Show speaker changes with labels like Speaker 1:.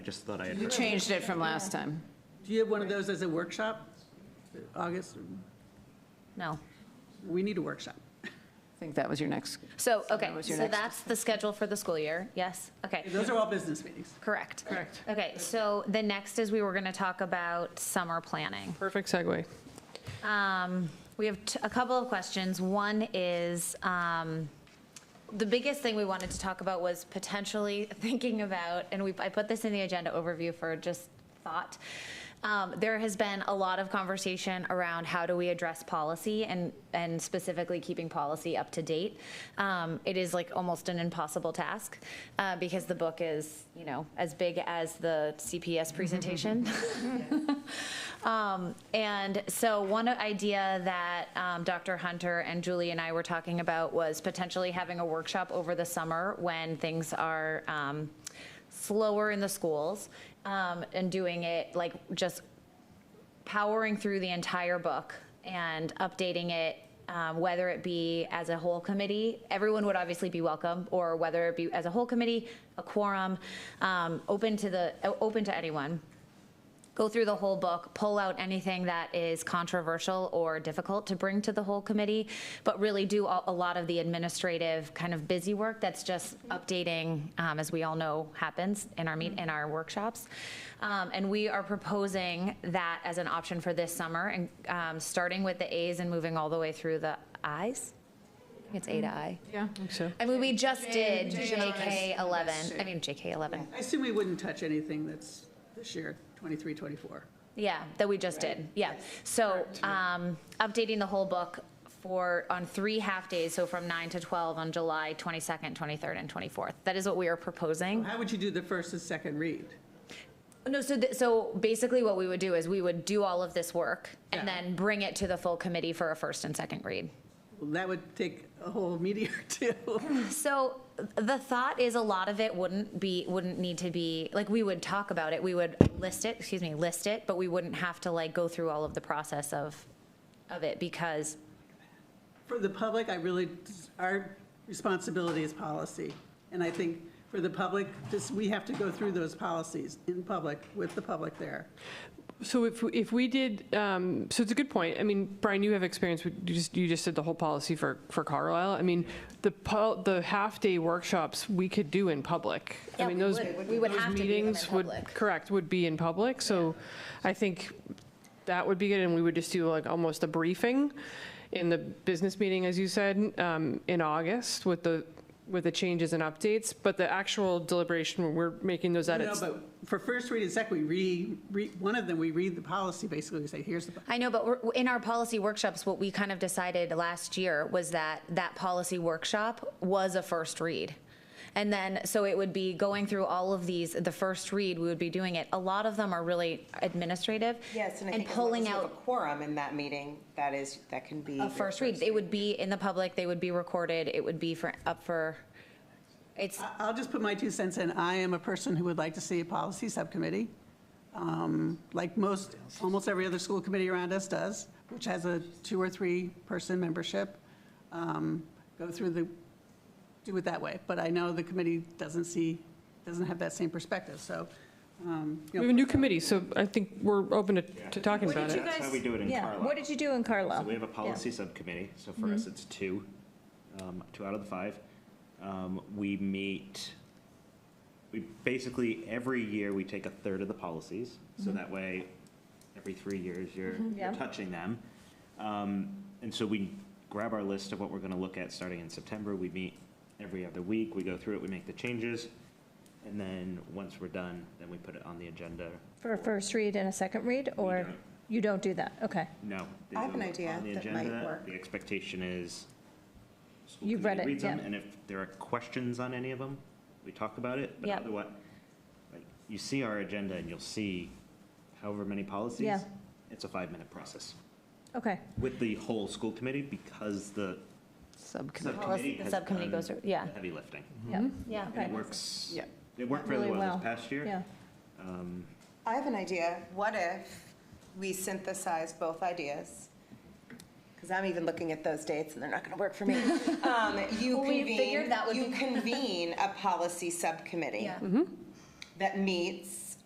Speaker 1: I just thought I
Speaker 2: You
Speaker 1: had,
Speaker 2: changed it from last time.
Speaker 3: Do you have one of those as a workshop? August,
Speaker 4: No.
Speaker 3: we need a workshop.
Speaker 2: I think that was your next,
Speaker 4: So, okay,
Speaker 2: that was your
Speaker 4: so
Speaker 2: next-
Speaker 4: that's the schedule for the school year, yes? Okay,
Speaker 3: Those are all business meetings.
Speaker 4: correct. Correct. Okay, so the next is we were going to talk about summer planning.
Speaker 5: Perfect segue.
Speaker 4: Um, We have t- a couple of questions. One is, um, the biggest thing we wanted to talk about was potentially thinking about, and we, I put this in the agenda overview for just thought. Um, There has been a lot of conversation around how do we address policy and, and specifically keeping policy up to date. Um, It is like almost an impossible task uh, because the book is, you know, as big as the CPS presentation. Um, and so one idea that um, Dr. Hunter and Julie and I were talking about was potentially having a workshop over the summer when things are um, slower in the schools um, and doing it like just powering through the entire book and updating it, um, whether it be as a whole committee, everyone would obviously be welcome, or whether it be as a whole committee, a quorum, um, open to the, open to anyone go through the whole book, pull out anything that is controversial or difficult to bring to the whole committee, but really do a, a lot of the administrative kind of busy work that's just updating, um, as we all know happens in our meet, in our workshops. Um, and we are proposing that as an option for this summer and, um, starting with the As and moving all the way through the Is. I think It's A to I.
Speaker 5: Yeah. So,
Speaker 4: I mean, we just did JK eleven, I mean, JK eleven.
Speaker 3: I assume we wouldn't touch anything that's this year, 23, 24.
Speaker 4: Yeah, that we just did, yeah. So, um, updating the whole book for, on three half-days, so from nine to twelve on July twenty-second, twenty-third, and twenty-fourth. That is what we are proposing.
Speaker 3: How would you do the first and second read?
Speaker 4: No, so, th- so basically what we would do is we would do all of this work and
Speaker 3: Yeah.
Speaker 4: then bring it to the full committee for a first and second read.
Speaker 3: Well, That would take a whole meeting or two.
Speaker 4: So the thought is a lot of it wouldn't be, wouldn't need to be, like, we would talk about it, we would list it, excuse me, list it, but we wouldn't have to like go through all of the process of, of it because
Speaker 3: For the public, I really, our responsibility is policy. And I think for the public, just, we have to go through those policies in public, with the public there.
Speaker 5: so if, we- if we did, um, so it's a good point. I mean, Brian, you have experience, with- you just, you just did the whole policy for, for Carlisle. I mean, the, pol- the half-day workshops, we could do in public. I
Speaker 4: Yeah,
Speaker 5: mean,
Speaker 4: we
Speaker 5: those
Speaker 4: would. We would
Speaker 5: those
Speaker 4: have to do them in
Speaker 5: meetings would-
Speaker 4: public.
Speaker 5: Correct, would be in public, so I think that would be good, and we would just do like almost a briefing in the business meeting, as you said, um, in August with the, with the changes and updates, but the actual deliberation, we're making those
Speaker 3: No,
Speaker 5: edits.
Speaker 3: but for first read and second, we re, re- one of them, we read the policy, basically, we say, here's the,
Speaker 4: I know, but we're- in our policy workshops, what we kind of decided last year was that that policy workshop was a first read. And then, so it would be going through all of these, the first read, we would be doing it. A lot of them are really administrative.
Speaker 6: Yes, and I think as long as
Speaker 4: pulling
Speaker 6: you have a
Speaker 4: out
Speaker 6: quorum in that meeting, that is, that can be.
Speaker 4: a first read. They would be in the public, they would be recorded, it would be for, up for, it's,
Speaker 3: I- I'll just put my two cents in. I am a person who would like to see a policy subcommittee, um, like most, almost every other school committee around us does, which has a two or three-person membership. Um, Go through the, do it that way. But I know the committee doesn't see, doesn't have that same perspective, so. um, you
Speaker 5: We
Speaker 3: know,
Speaker 5: have a new committee, so I think we're open to, to talking
Speaker 1: What
Speaker 5: about
Speaker 1: did
Speaker 5: it.
Speaker 1: you That's how we do it in
Speaker 7: yeah,
Speaker 1: Carlisle.
Speaker 7: What did you do in Carlisle?
Speaker 1: so we have a policy subcommittee, so for us, it's two, um, two out of the five. Um, We meet, we, basically, every year, we take a third of the policies, so that way, every three years, you're you're
Speaker 7: Yeah.
Speaker 1: touching them. Um, And so we grab our list of what we're going to look at starting in September. We meet every other week, we go through it, we make the changes, and then, once we're done, then we put it on the agenda.
Speaker 7: For a first read and a second read,
Speaker 1: We
Speaker 7: or
Speaker 1: don't-
Speaker 7: you don't do that? Okay.
Speaker 1: No. they
Speaker 6: I have an
Speaker 1: go
Speaker 6: idea
Speaker 1: on the
Speaker 6: that might
Speaker 1: agenda.
Speaker 6: work.
Speaker 1: The expectation is. school
Speaker 7: You've read
Speaker 1: committee
Speaker 7: it,
Speaker 1: reads them,
Speaker 7: yeah.
Speaker 1: And if there are questions on any of them, we talk about it. But
Speaker 4: Yep.
Speaker 1: otherwise, like, you see our agenda and you'll see however many policies.
Speaker 7: Yeah.
Speaker 1: It's a five-minute process
Speaker 7: Okay.
Speaker 1: with the whole school committee because the
Speaker 2: subcommittee.
Speaker 1: subcommittee
Speaker 4: the
Speaker 1: has
Speaker 4: subcommittee
Speaker 1: done
Speaker 4: goes through- yeah.
Speaker 1: the Heavy lifting.
Speaker 7: Yeah.
Speaker 4: yeah.
Speaker 1: And it
Speaker 7: Okay.
Speaker 1: works,
Speaker 2: Yeah.
Speaker 1: it worked really well this past year.
Speaker 7: Yeah.
Speaker 1: Um,
Speaker 6: I have an idea. What if we synthesize both ideas? Because I'm even looking at those dates and they're not going to work for me. Um, You
Speaker 4: Well, we
Speaker 6: convene,
Speaker 4: figured that would
Speaker 6: you
Speaker 4: be- Mm-hmm.
Speaker 6: convene a policy subcommittee
Speaker 4: Yeah.
Speaker 6: that meets